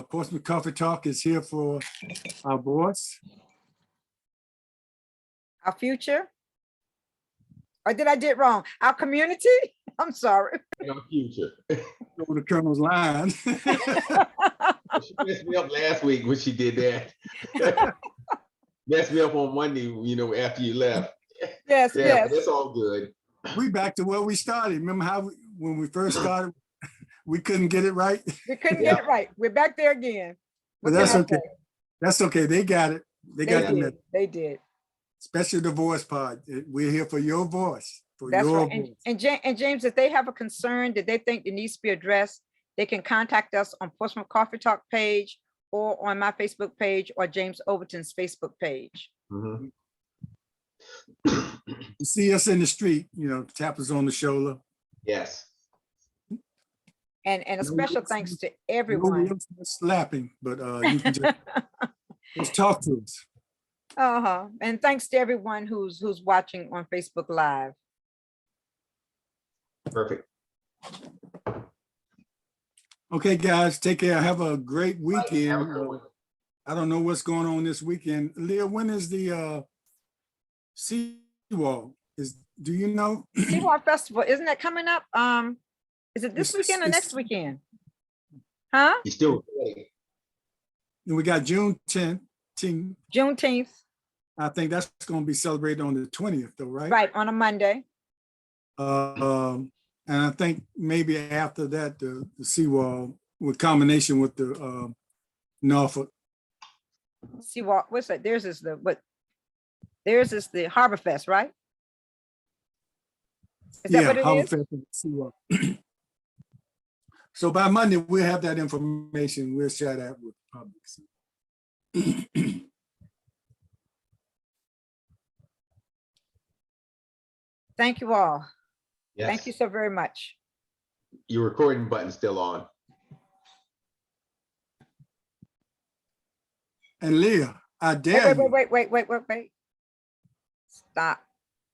Portsmouth Coffee Talk is here for our boards. our future? Or did I did wrong? Our community? I'm sorry. in our future. On the Colonel's line. She messed me up last week when she did that. Messed me up on Monday, you know, after you left. Yes, Yeah, yes. but it's all good. We back to where we started. Remember how, we- when we first started, we couldn't get it right? We couldn't get it right. We're back there again. But What that's can I okay. say? That's okay. They got it. They They got the did. message. They did. Special divorce part. We're here for your voice, for That's your right. And, voice. and Ja- and James, if they have a concern that they think that needs to be addressed, they can contact us on Portsmouth Coffee Talk page or on my Facebook page or James Overton's Facebook page. Mhm. Mm-hmm. You See us in the street, you know, tap us on the shoulder. Yes. And, and a No, we special don't see- thanks to No real everyone. Slapping, but uh, you can just, just talk to us. Uh-huh. And thanks to everyone who's, who's watching on Facebook Live. Perfect. Okay, guys, take care. Have a great Have a weekend. good Uh, one. I don't know what's going on this weekend. Leah, when is the uh Seawall? Is, do you know? Seawalk Festival, isn't that coming up? Um, is it this It's- weekend or it's- next weekend? Huh? You still, And we got June tenth, Juneteenth, I think that's gonna be celebrated on the twentieth though, right? right, on a Monday. Uh, um, and I think maybe after that, the, the Seawall with combination with the uh Norfolk. Seawalk, what's that? Theirs is the, what? Theirs is the Harbor Fest, right? Is that Yeah, what it is? Harbor Fest and Seawall. So by Monday, we'll have that information. We'll share that with the public. so. Thank you all. Thank yes, you so very much. your recording button's still on. And Leah, I dare Wait, you. wait, wait, wait, wait, wait, wait. Stop.